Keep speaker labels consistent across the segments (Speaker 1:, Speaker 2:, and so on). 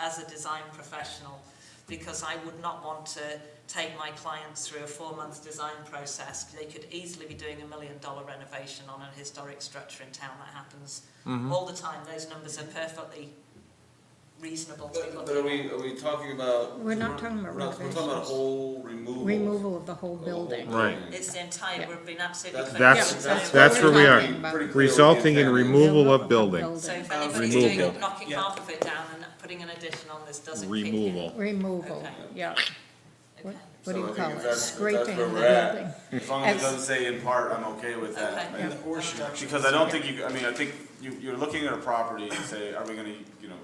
Speaker 1: as a design professional because I would not want to take my clients through a four month design process. They could easily be doing a million dollar renovation on a historic structure in town that happens all the time. Those numbers are perfectly reasonable to be
Speaker 2: But, but are
Speaker 1: looking at.
Speaker 2: we, are we talking about?
Speaker 3: We're not talking about
Speaker 2: We're not- We're talking about
Speaker 3: renovations.
Speaker 2: whole removal.
Speaker 3: removal of the whole
Speaker 2: of the
Speaker 3: building.
Speaker 2: whole building.
Speaker 1: It's the entire,
Speaker 3: Yeah.
Speaker 1: we've been absolutely
Speaker 2: That's,
Speaker 1: clear.
Speaker 3: Yeah,
Speaker 2: that's,
Speaker 3: that's
Speaker 2: that's.
Speaker 3: what
Speaker 2: where
Speaker 3: we're
Speaker 2: we are.
Speaker 3: talking about.
Speaker 2: Pretty clear
Speaker 4: Resulting in
Speaker 2: what the intent is.
Speaker 4: removal of
Speaker 3: the
Speaker 4: building.
Speaker 1: So if
Speaker 2: Um,
Speaker 1: anybody's
Speaker 4: Remove
Speaker 1: doing
Speaker 4: building.
Speaker 1: it, knocking
Speaker 2: Yeah.
Speaker 1: half of it down and putting an addition on this doesn't kick in.
Speaker 4: Removal.
Speaker 3: Removal,
Speaker 1: Okay.
Speaker 3: yeah. What,
Speaker 1: Okay.
Speaker 3: what do
Speaker 2: So
Speaker 3: you
Speaker 2: I think
Speaker 3: call
Speaker 2: if
Speaker 3: it?
Speaker 2: that's- if that's
Speaker 3: Scraping the
Speaker 2: where we're at,
Speaker 3: building.
Speaker 2: As long as it
Speaker 3: Ex-
Speaker 2: doesn't say in part, I'm okay with that.
Speaker 1: Okay.
Speaker 2: Uh, And-
Speaker 3: Yeah.
Speaker 5: Or structure.
Speaker 2: Because I don't think you, I mean, I think you, you're looking at a property and say, are we gonna, you know,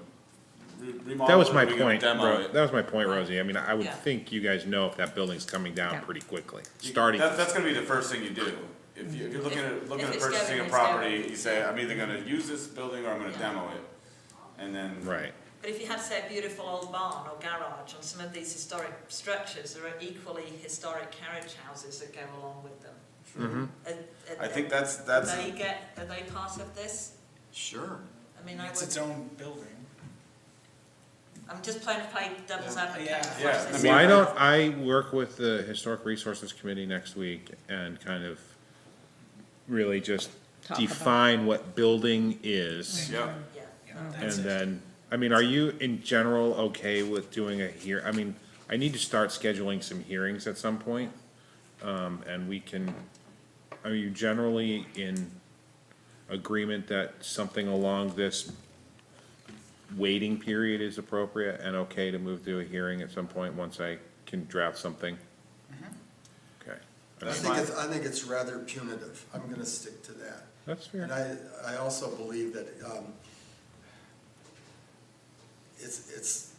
Speaker 2: re- remodel it?
Speaker 4: That was
Speaker 2: or
Speaker 4: my
Speaker 2: are we gonna
Speaker 4: point,
Speaker 2: Demo
Speaker 4: Ro-
Speaker 2: it?
Speaker 4: that was my point, Rosie. I mean, I would
Speaker 1: Yeah.
Speaker 4: think you guys know if that building's coming
Speaker 3: Yeah.
Speaker 4: down pretty quickly,
Speaker 2: You-
Speaker 4: starting.
Speaker 2: That, that's gonna be the first thing you do. If you, if you're looking at, looking
Speaker 1: if
Speaker 2: at
Speaker 1: it's
Speaker 2: purchasing
Speaker 1: going,
Speaker 2: a
Speaker 1: it's
Speaker 2: property,
Speaker 1: going.
Speaker 2: you say, I'm either gonna use this building or I'm gonna
Speaker 1: Yeah.
Speaker 2: demo it. And then.
Speaker 4: Right,
Speaker 1: But if you had, say, a beautiful old barn or garage on some of these historic structures, there are equally historic carriage houses that go along with them.
Speaker 4: Mm-hmm.
Speaker 1: Are- are-
Speaker 2: I think that's, that's,
Speaker 1: They get, are they part of this?
Speaker 5: Sure.
Speaker 1: I mean, I
Speaker 5: It's its
Speaker 1: would,
Speaker 5: own building.
Speaker 1: I'm just playing, play devil's
Speaker 5: Yeah.
Speaker 1: advocate.
Speaker 5: Yeah.
Speaker 1: and flush
Speaker 2: Yeah, I
Speaker 1: this
Speaker 2: mean-
Speaker 1: out.
Speaker 4: why don't I work with the Historic Resources Committee next week and kind of really just
Speaker 3: Talk about it.
Speaker 4: define what building is?
Speaker 2: yeah.
Speaker 1: Yeah.
Speaker 5: Yeah,
Speaker 4: And
Speaker 5: that's it.
Speaker 4: then, I mean, are you in general okay with doing a hear, I mean, I need to start scheduling some hearings at some point. Um, and we can, are you generally in agreement that something along this waiting period is appropriate and okay to move to a hearing at some point once I can draft something?
Speaker 5: Mm-hmm.
Speaker 4: Okay,
Speaker 6: I
Speaker 2: That's
Speaker 6: think
Speaker 2: fine.
Speaker 6: it's, I think it's rather punitive, I'm gonna stick to that.
Speaker 4: that's
Speaker 6: And
Speaker 4: fair.
Speaker 6: I, I also believe that, um, it's, it's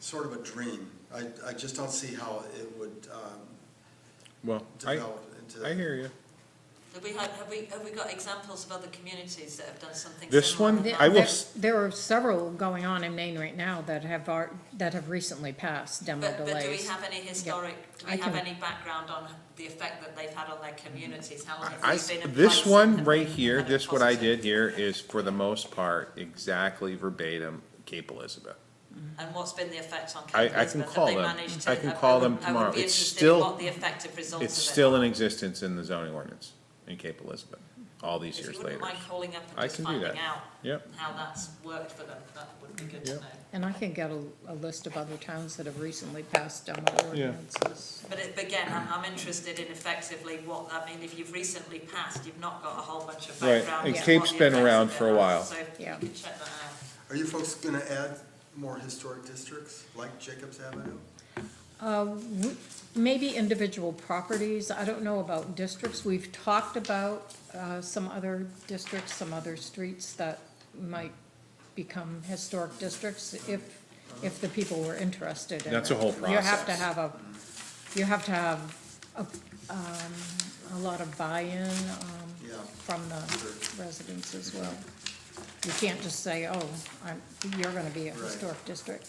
Speaker 6: sort of a dream. I, I just don't see how it would, um,
Speaker 4: Well, I,
Speaker 6: develop into.
Speaker 4: I hear you.
Speaker 1: Have we had, have we, have we got examples of other communities that have done something similar?
Speaker 4: This one,
Speaker 1: with
Speaker 4: I
Speaker 1: that?
Speaker 4: will s-
Speaker 3: There are several going on in Maine right now that have, are- that have recently passed demo
Speaker 1: But, but do we
Speaker 3: delays.
Speaker 1: have any historic, do
Speaker 3: I
Speaker 1: we have
Speaker 3: can-
Speaker 1: any background on the effect that they've had on their communities? How long
Speaker 4: I,
Speaker 1: have we been in
Speaker 4: this
Speaker 1: place?
Speaker 4: one
Speaker 1: Have
Speaker 4: right
Speaker 1: we
Speaker 4: here,
Speaker 1: had a
Speaker 4: this what I
Speaker 1: positive-
Speaker 4: did here is for the most part exactly verbatim Cape Elizabeth.
Speaker 1: And what's been the effect on Cape
Speaker 4: I- I
Speaker 1: Elizabeth?
Speaker 4: can
Speaker 1: Have
Speaker 4: call
Speaker 1: they
Speaker 4: them.
Speaker 1: managed
Speaker 4: I
Speaker 1: to-
Speaker 4: can call them
Speaker 1: would- I
Speaker 4: tomorrow.
Speaker 1: would be
Speaker 4: It's
Speaker 1: interested in
Speaker 4: still-
Speaker 1: what the effective results of it.
Speaker 4: It's still in existence in the zoning ordinance in Cape Elizabeth, all these
Speaker 1: If
Speaker 4: years
Speaker 1: you wouldn't
Speaker 4: later.
Speaker 1: mind calling up
Speaker 4: I
Speaker 1: and just
Speaker 4: can do
Speaker 1: finding
Speaker 4: that.
Speaker 1: out
Speaker 4: Yep,
Speaker 1: how that's worked for them, that would be good to
Speaker 4: Yep.
Speaker 1: know.
Speaker 3: And I can get a, a list of other towns that have recently passed demo ordinances.
Speaker 1: But it, but again, I'm, I'm interested in effectively what, I mean, if you've recently passed, you've not got a whole bunch of
Speaker 4: Right,
Speaker 1: background.
Speaker 4: and
Speaker 1: on what
Speaker 4: Cape's
Speaker 1: the
Speaker 4: been
Speaker 1: effects
Speaker 4: around
Speaker 1: of it
Speaker 4: for a
Speaker 1: are,
Speaker 4: while.
Speaker 1: So you
Speaker 3: Yeah.
Speaker 1: can check that out.
Speaker 6: Are you folks gonna add more historic districts like Jacobs Avenue?
Speaker 3: Uh, w- Maybe individual properties, I don't know about districts. We've talked about uh, some other districts, some other streets that might become historic districts if, if the people were interested in
Speaker 4: That's a
Speaker 3: it.
Speaker 4: whole
Speaker 3: You have to
Speaker 4: process.
Speaker 3: have a, you have to have a, um, a lot of buy-in um,
Speaker 6: Yeah.
Speaker 3: from the residents as well. You can't just say, oh, I'm, you're gonna be a
Speaker 6: Right.
Speaker 3: historic district.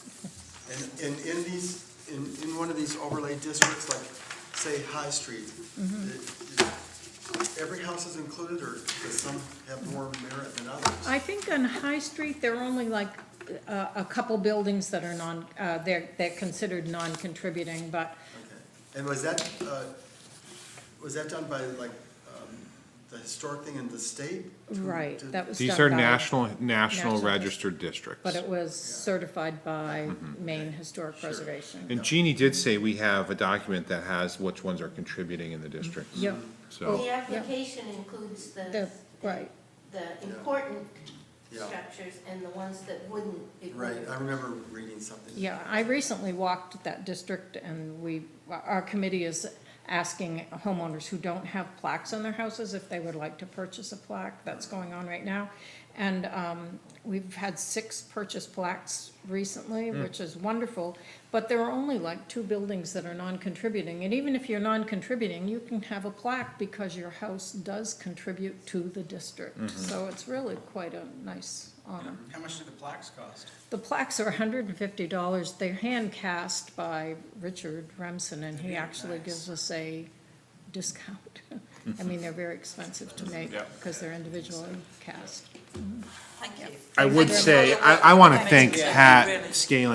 Speaker 6: And, and in these, in, in one of these overlay districts, like, say, High Street, it- it- every house is included, or does some have more merit than others?
Speaker 3: I think on High Street, there are only like uh, a couple buildings that are non, uh, they're, they're considered non-contributing, but
Speaker 6: Okay. And was that, uh, was that done by, like, um, the historic thing in the state? To-
Speaker 3: Right,
Speaker 6: to-
Speaker 3: that was
Speaker 4: these
Speaker 3: done
Speaker 4: are
Speaker 3: by-
Speaker 4: national, national
Speaker 3: national-
Speaker 4: registered districts.
Speaker 3: But it was certified by
Speaker 4: Mm-hmm.
Speaker 3: Maine Historic Preservation.
Speaker 4: And Jeannie did say we have a document that has which ones are contributing in the districts.
Speaker 3: Yep,
Speaker 4: So,
Speaker 7: The application includes the,
Speaker 3: Oh, the, right,
Speaker 7: the important
Speaker 6: Yeah.
Speaker 7: structures and the ones that wouldn't. it
Speaker 6: Right,
Speaker 7: wouldn't.
Speaker 6: I remember reading something.
Speaker 3: yeah. I recently walked that district and we, our committee is asking homeowners who don't have plaques on their houses if they would like to purchase a plaque. That's going on right now. And um, we've had six purchase plaques recently, which is wonderful. But there are only like two buildings that are non-contributing. And even if you're non-contributing, you can have a plaque because your house does contribute to the district. So it's really quite a nice um, honor.
Speaker 5: How much do the plaques cost?
Speaker 3: The plaques are hundred and fifty dollars, they're hand cast by Richard Remsen, and he actually gives us a discount. I mean, they're very expensive to make,
Speaker 2: Yeah.
Speaker 3: because they're individually cast.
Speaker 1: Thank you.
Speaker 4: I would say, I, I wanna thank Pat Scaling